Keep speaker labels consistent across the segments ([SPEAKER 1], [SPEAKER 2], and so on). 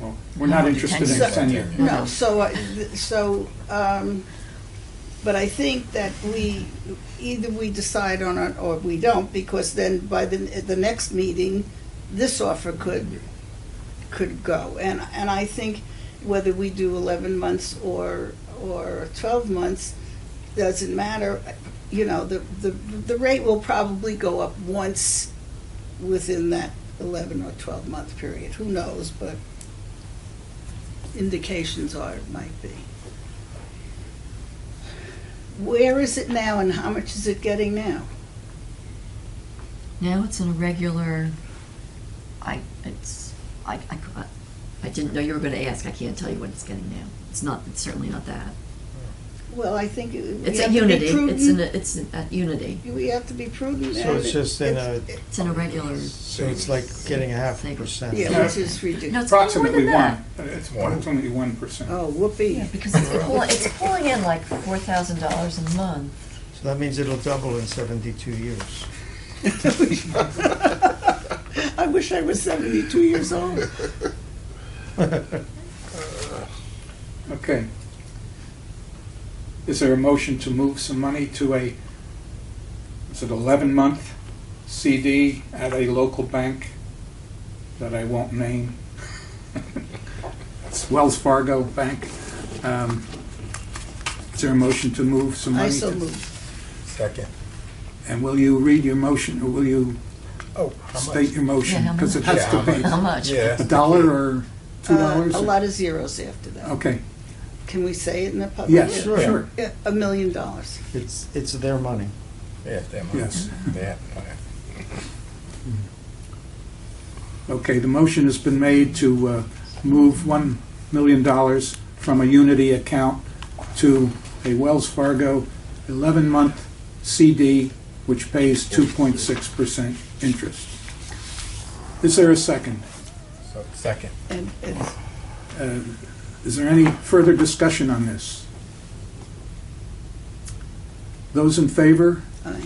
[SPEAKER 1] Well, We're not interested in ten year.
[SPEAKER 2] No, so, I- th- so, um, but I think that we, either we decide on it or we don't, because then by the, at the next meeting, this offer could, could go. And, and I think whether we do eleven months or, or twelve months, doesn't matter. You know, the, the, the rate will probably go up once within that eleven or twelve-month period. Who knows, but indications are it might be. Where is it now and how much is it getting now?
[SPEAKER 3] Now it's in a regular, I, it's, I, I, cou- I didn't know you were gonna ask, I can't tell you what it's getting now. It's not, it's certainly not that.
[SPEAKER 2] Well, I think it- we
[SPEAKER 3] It's at
[SPEAKER 2] have to
[SPEAKER 3] Unity,
[SPEAKER 2] be
[SPEAKER 3] it's in, a-
[SPEAKER 2] prudent.
[SPEAKER 3] it's at Unity,
[SPEAKER 2] We have to be prudent.
[SPEAKER 4] So
[SPEAKER 2] and
[SPEAKER 4] it's just in a-
[SPEAKER 2] it's-
[SPEAKER 3] it's in a regular,
[SPEAKER 4] So it's like getting a half
[SPEAKER 3] Savings.
[SPEAKER 4] percent.
[SPEAKER 2] Yeah, which is ridiculous.
[SPEAKER 3] It's more than
[SPEAKER 1] Approximately one.
[SPEAKER 3] that.
[SPEAKER 1] It's approximately one percent.
[SPEAKER 2] Oh, whoopee.
[SPEAKER 3] because it's, pull- it's pulling in like four thousand dollars a month.
[SPEAKER 4] So that means it'll double in seventy-two years.
[SPEAKER 2] I wish I was 72 years old.
[SPEAKER 1] Okay. Is there a motion to move some money to a, is it eleven month CD at a local bank that I won't name? It's Wells Fargo Bank. Um, Is there a motion to move some money?
[SPEAKER 2] I so
[SPEAKER 1] to-
[SPEAKER 2] moved.
[SPEAKER 5] Second.
[SPEAKER 1] And will you read your motion, or will you
[SPEAKER 5] Oh, how much?
[SPEAKER 1] state your motion?
[SPEAKER 3] Yeah, how
[SPEAKER 1] Because it
[SPEAKER 3] much?
[SPEAKER 1] has to
[SPEAKER 5] Yeah,
[SPEAKER 3] How
[SPEAKER 1] be
[SPEAKER 3] much?
[SPEAKER 5] Yeah.
[SPEAKER 1] a dollar or two
[SPEAKER 2] Uh,
[SPEAKER 1] dollars?
[SPEAKER 2] A lot of zeros after that.
[SPEAKER 1] Okay,
[SPEAKER 2] Can we say it in the public?
[SPEAKER 1] yes,
[SPEAKER 4] Sure.
[SPEAKER 1] sure,
[SPEAKER 2] Yeah, A million dollars.
[SPEAKER 4] It's, it's their money.
[SPEAKER 5] Yeah, that much.
[SPEAKER 1] Yes.
[SPEAKER 5] That much.
[SPEAKER 1] Okay, the motion has been made to uh, move $1 million from a Unity account to a Wells Fargo 11-month CD, which pays 2.6% interest. Is there a second?
[SPEAKER 5] So, second.
[SPEAKER 2] And it's,
[SPEAKER 1] Uh, Is there any further discussion on this? Those in favor?
[SPEAKER 2] I,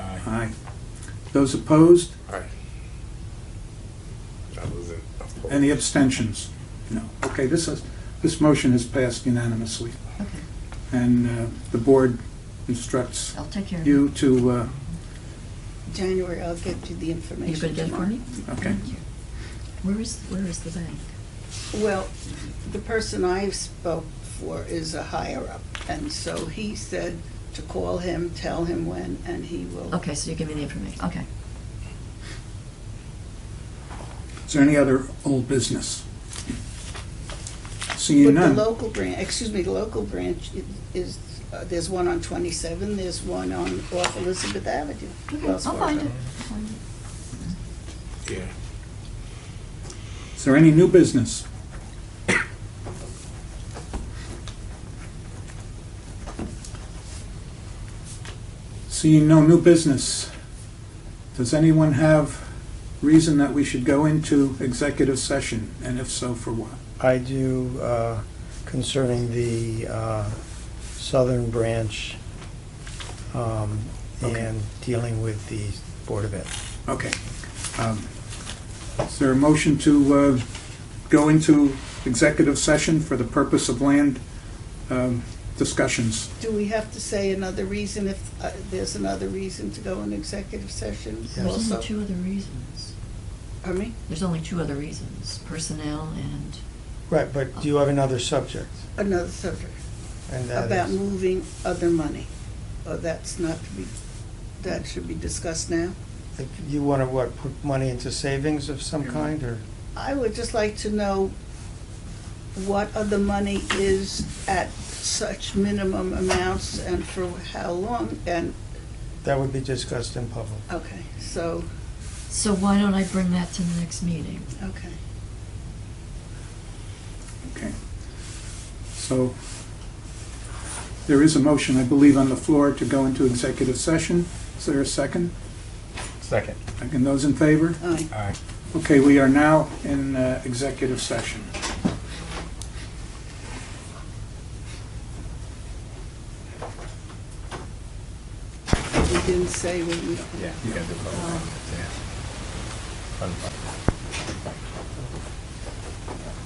[SPEAKER 5] Aye.
[SPEAKER 1] Aye. Those opposed?
[SPEAKER 6] Aye. I was in.
[SPEAKER 1] Any abstentions? No. Okay, this is, this motion has passed unanimously.
[SPEAKER 3] Okay,
[SPEAKER 1] And uh, the board instructs
[SPEAKER 3] I'll take care of it.
[SPEAKER 1] you to, uh,
[SPEAKER 2] January, I'll get you the
[SPEAKER 3] Are
[SPEAKER 2] information
[SPEAKER 3] you gonna get it for
[SPEAKER 2] tomorrow.
[SPEAKER 3] me?
[SPEAKER 1] okay,
[SPEAKER 3] Thank you. Where is, where is the bank?
[SPEAKER 2] Well, the person I spoke for is a higher up, and so he said to call him, tell him when, and he will.
[SPEAKER 3] Okay, so you give me the information, okay.
[SPEAKER 1] is there any other old business? Seeing
[SPEAKER 2] But the
[SPEAKER 1] none.
[SPEAKER 2] local branch, excuse me, the local branch i- is, uh, there's one on 27, there's one on off Elizabeth Avenue.
[SPEAKER 3] Okay, I'll
[SPEAKER 2] Wells
[SPEAKER 3] find it.
[SPEAKER 2] Fargo.
[SPEAKER 3] I'll find it.
[SPEAKER 6] Yeah.
[SPEAKER 1] Is there any new business? Seeing no new business, does anyone have reason that we should go into executive session? And if so, for what?
[SPEAKER 4] I do uh, concerning the uh, Southern Branch um,
[SPEAKER 1] Okay.
[SPEAKER 4] and dealing with the Board of Ed.
[SPEAKER 1] Okay. Um, Is there a motion to uh, go into executive session for the purpose of land um, discussions?
[SPEAKER 2] Do we have to say another reason if uh, there's another reason to go in executive session
[SPEAKER 4] Yes.
[SPEAKER 3] There's
[SPEAKER 2] also?
[SPEAKER 3] only two other reasons.
[SPEAKER 2] Pardon me?
[SPEAKER 3] There's only two other reasons, personnel and,
[SPEAKER 4] Right, but do you have another subject?
[SPEAKER 2] Another subject.
[SPEAKER 4] And that
[SPEAKER 2] about
[SPEAKER 4] is-
[SPEAKER 2] moving other money. Oh, that's not to be, that should be discussed now.
[SPEAKER 4] if You want to, what, put money into savings of some kind, or?
[SPEAKER 2] I would just like to know what other money is at such minimum amounts and for how long, and,
[SPEAKER 4] That would be discussed in public.
[SPEAKER 2] okay, so,
[SPEAKER 3] so why don't I bring that to the next meeting?
[SPEAKER 2] okay.
[SPEAKER 1] Okay. So there is a motion, I believe, on the floor to go into executive session. Is there a second?
[SPEAKER 5] Second.
[SPEAKER 1] Second, those in favor?
[SPEAKER 2] All right.
[SPEAKER 5] Aye.
[SPEAKER 1] Okay, we are now in uh, executive session.
[SPEAKER 2] we didn't say when we.
[SPEAKER 5] Yeah. Yeah.
[SPEAKER 2] Um,
[SPEAKER 5] Yeah.